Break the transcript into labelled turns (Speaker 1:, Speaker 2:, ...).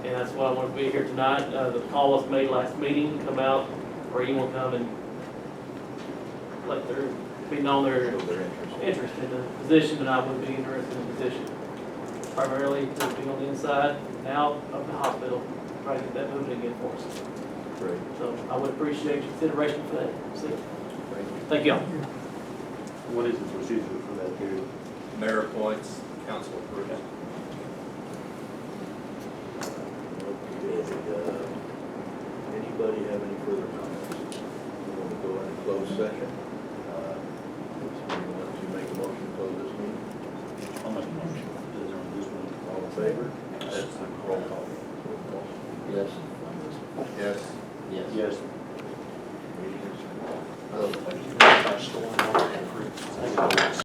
Speaker 1: and that's why I wanted to be here tonight. Uh, the call was made last meeting, come out, or you will come and let their, be known their
Speaker 2: Their interest.
Speaker 1: interest in the position, and I would be interested in the position. Primarily to be on the inside, and out of the hospital, try to get that moving again for us.
Speaker 2: Great,
Speaker 1: So I would appreciate your consideration for that. See,
Speaker 2: thank you.
Speaker 1: thank y'all.
Speaker 3: What is the procedure for that period?
Speaker 4: Mayor appoints, council approves.
Speaker 2: And, uh, Anybody have any further comments? We're going to go into closed session. Uh, if Somebody wants to make a motion to close this meeting?
Speaker 3: I'll make a motion. Is there on this one?
Speaker 2: All in favor?
Speaker 3: That's the roll call.
Speaker 2: Yes.